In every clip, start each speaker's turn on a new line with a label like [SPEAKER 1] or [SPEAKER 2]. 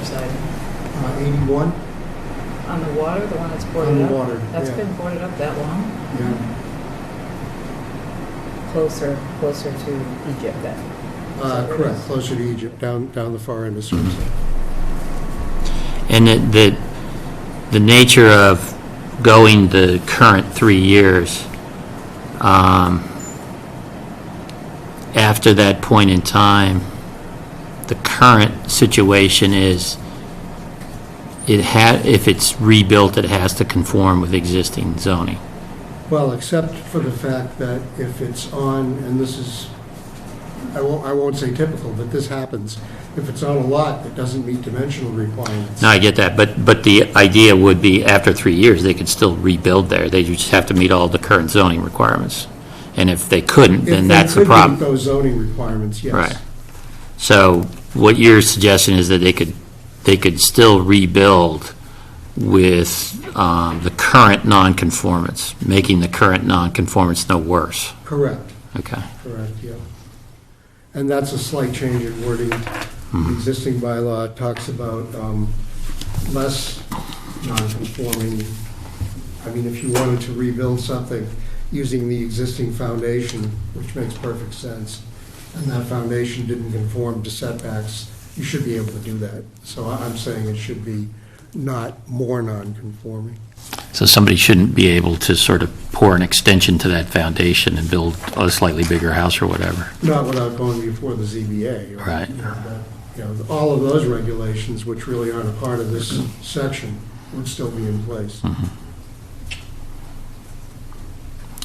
[SPEAKER 1] Surfside?
[SPEAKER 2] Uh, 81,
[SPEAKER 1] On the water, the one that's
[SPEAKER 3] Oh,
[SPEAKER 1] boarded
[SPEAKER 2] On the
[SPEAKER 1] up?
[SPEAKER 2] water,
[SPEAKER 1] That's
[SPEAKER 2] yeah.
[SPEAKER 1] been boarded up that long?
[SPEAKER 2] yeah.
[SPEAKER 1] Closer, closer to Egypt then?
[SPEAKER 2] Uh, Correct, closer to Egypt, down, down the far end of Surfside.
[SPEAKER 4] And the- the, the nature of going the current three years, um, after that point in time, the current situation is, it had, if it's rebuilt, it has to conform with existing zoning.
[SPEAKER 2] Well, except for the fact that if it's on, and this is, I won't, I won't say typical, but this happens, if it's on a lot that doesn't meet dimensional requirements.
[SPEAKER 4] No, I get that, but, but the idea would be after three years, they could still rebuild there. They just have to meet all the current zoning requirements. And if they couldn't,
[SPEAKER 2] If
[SPEAKER 4] then
[SPEAKER 2] they
[SPEAKER 4] that's the
[SPEAKER 2] could meet
[SPEAKER 4] problem.
[SPEAKER 2] Those zoning requirements, yes.
[SPEAKER 4] Right. So what you're suggesting is that they could, they could still rebuild with um, the current nonconformance, making the current nonconformance no worse.
[SPEAKER 2] Correct,
[SPEAKER 4] Okay.
[SPEAKER 2] correct, yeah. And that's a slight change in wording. The Existing bylaw talks about um, less non-conforming. I mean, if you wanted to rebuild something using the existing foundation, which makes perfect sense, and that foundation didn't conform to setbacks, you should be able to do that. So I- I'm saying it should be not more non-conforming.
[SPEAKER 4] So somebody shouldn't be able to sort of pour an extension to that foundation and build a slightly bigger house or whatever.
[SPEAKER 2] Not without going before the ZBA. or,
[SPEAKER 4] Right.
[SPEAKER 2] you know, that- uh, You know, all of those regulations, which really aren't a part of this section, would still be in place.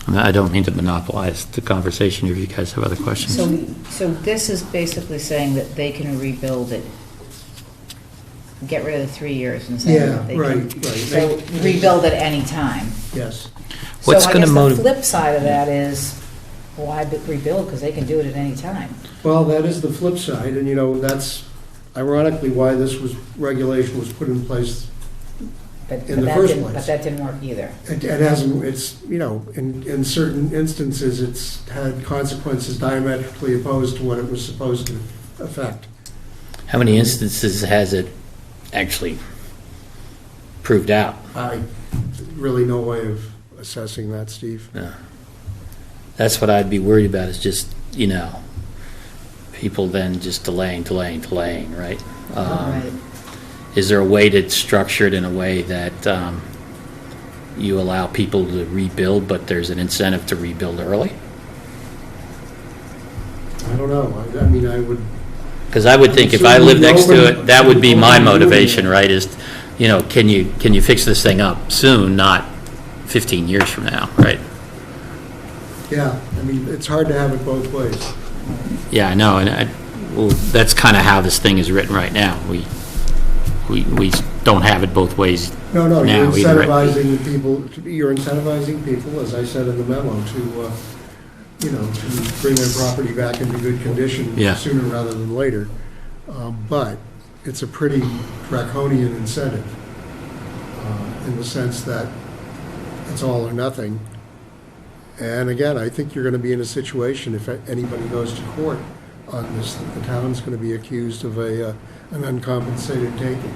[SPEAKER 4] And I don't mean to monopolize the conversation if you guys have other questions.
[SPEAKER 3] So, so this is basically saying that they can rebuild it, get rid of the three years and say
[SPEAKER 2] Yeah,
[SPEAKER 3] that they
[SPEAKER 2] right,
[SPEAKER 3] can.
[SPEAKER 2] right.
[SPEAKER 3] So rebuild at any time.
[SPEAKER 2] Yes.
[SPEAKER 4] What's gonna
[SPEAKER 3] So I
[SPEAKER 4] motiv-
[SPEAKER 3] guess the flip side of that is, why be- rebuild, because they can do it at any time.
[SPEAKER 2] Well, that is the flip side, and you know, that's ironically why this was, regulation was put in place.
[SPEAKER 3] But-
[SPEAKER 2] In
[SPEAKER 3] but
[SPEAKER 2] the
[SPEAKER 3] that
[SPEAKER 2] first
[SPEAKER 3] didn't-
[SPEAKER 2] place.
[SPEAKER 3] But that didn't work either.
[SPEAKER 2] It it hasn't, it's, you know, in, in certain instances, it's had consequences diametrically opposed to what it was supposed to affect.
[SPEAKER 5] How many instances has it actually proved out?
[SPEAKER 2] I, really no way of assessing that, Steve.
[SPEAKER 5] That's what I'd be worried about is just, you know, people then just delaying, delaying, delaying, right?
[SPEAKER 4] Uh-huh.
[SPEAKER 5] Um,
[SPEAKER 3] Right.
[SPEAKER 5] Is there a way to structure it in a way that um, you allow people to rebuild, but there's an incentive to rebuild early?
[SPEAKER 2] I don't know. I- I mean, I would,
[SPEAKER 5] Because I would think if I lived next to it, that would be my motivation, right? Is, you know, can you, can you fix this thing up soon, not 15 years from now, right?
[SPEAKER 2] yeah, I mean, it's hard to have it both ways.
[SPEAKER 4] Yeah, I know, and I, well, that's kind of how this thing is written right now. We, we, we don't have it both ways.
[SPEAKER 2] No, no, you're
[SPEAKER 4] Now, either way.
[SPEAKER 2] incentivizing people, to be- you're incentivizing people, as I said in the memo, to, uh, you know, to bring their property back into good condition
[SPEAKER 4] Yeah.
[SPEAKER 2] sooner rather than later. Uh, But it's a pretty draconian incentive uh, in the sense that it's all or nothing. And again, I think you're going to be in a situation, if anybody goes to court on this, that the town's going to be accused of a, uh, an uncompensated taking.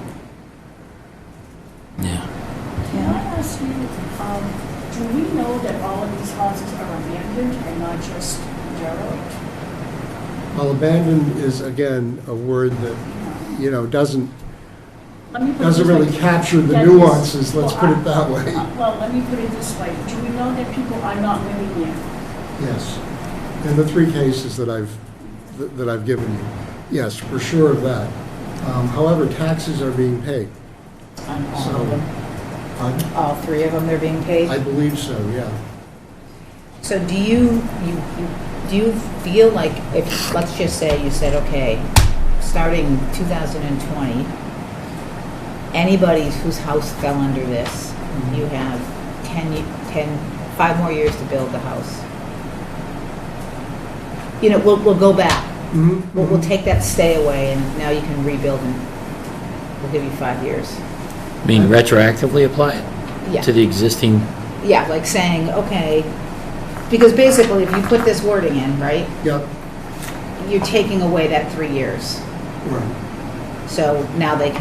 [SPEAKER 4] Yeah.
[SPEAKER 6] Can I ask you, um, do we know that all of these houses are abandoned and not just derelict?
[SPEAKER 2] Well, abandoned is, again, a word that, you know, doesn't,
[SPEAKER 6] Let me put it
[SPEAKER 2] doesn't
[SPEAKER 6] this way.
[SPEAKER 2] really capture the
[SPEAKER 6] That is-
[SPEAKER 2] nuances, let's
[SPEAKER 6] well,
[SPEAKER 2] put
[SPEAKER 6] I-
[SPEAKER 2] it that way.
[SPEAKER 6] uh, Well, let me put it this way, do we know that people are not living there?
[SPEAKER 2] Yes. In the three cases that I've, that that I've given you, yes, for sure of that. Um, However, taxes are being paid,
[SPEAKER 3] On all of
[SPEAKER 2] so,
[SPEAKER 3] them.
[SPEAKER 2] I
[SPEAKER 3] All three of them, they're being
[SPEAKER 2] I
[SPEAKER 3] paid?
[SPEAKER 2] believe so, yeah.
[SPEAKER 3] So do you, you, you- do you feel like if, let's just say you said, okay, starting 2020, anybody whose house fell under this, you have 10, ye- 10, five more years to build the house. You know, we'll, we'll go back.
[SPEAKER 2] Mhm,
[SPEAKER 3] We'll, we'll
[SPEAKER 2] mhm.
[SPEAKER 3] take that stay away and now you can rebuild and we'll give you five years.
[SPEAKER 5] I mean, retroactively apply it
[SPEAKER 3] Yeah.
[SPEAKER 5] to the existing
[SPEAKER 3] Yeah, like saying, okay, because basically if you put this wording in, right,
[SPEAKER 2] Yep,
[SPEAKER 3] you're taking away that three years.
[SPEAKER 2] right.
[SPEAKER 3] So now they can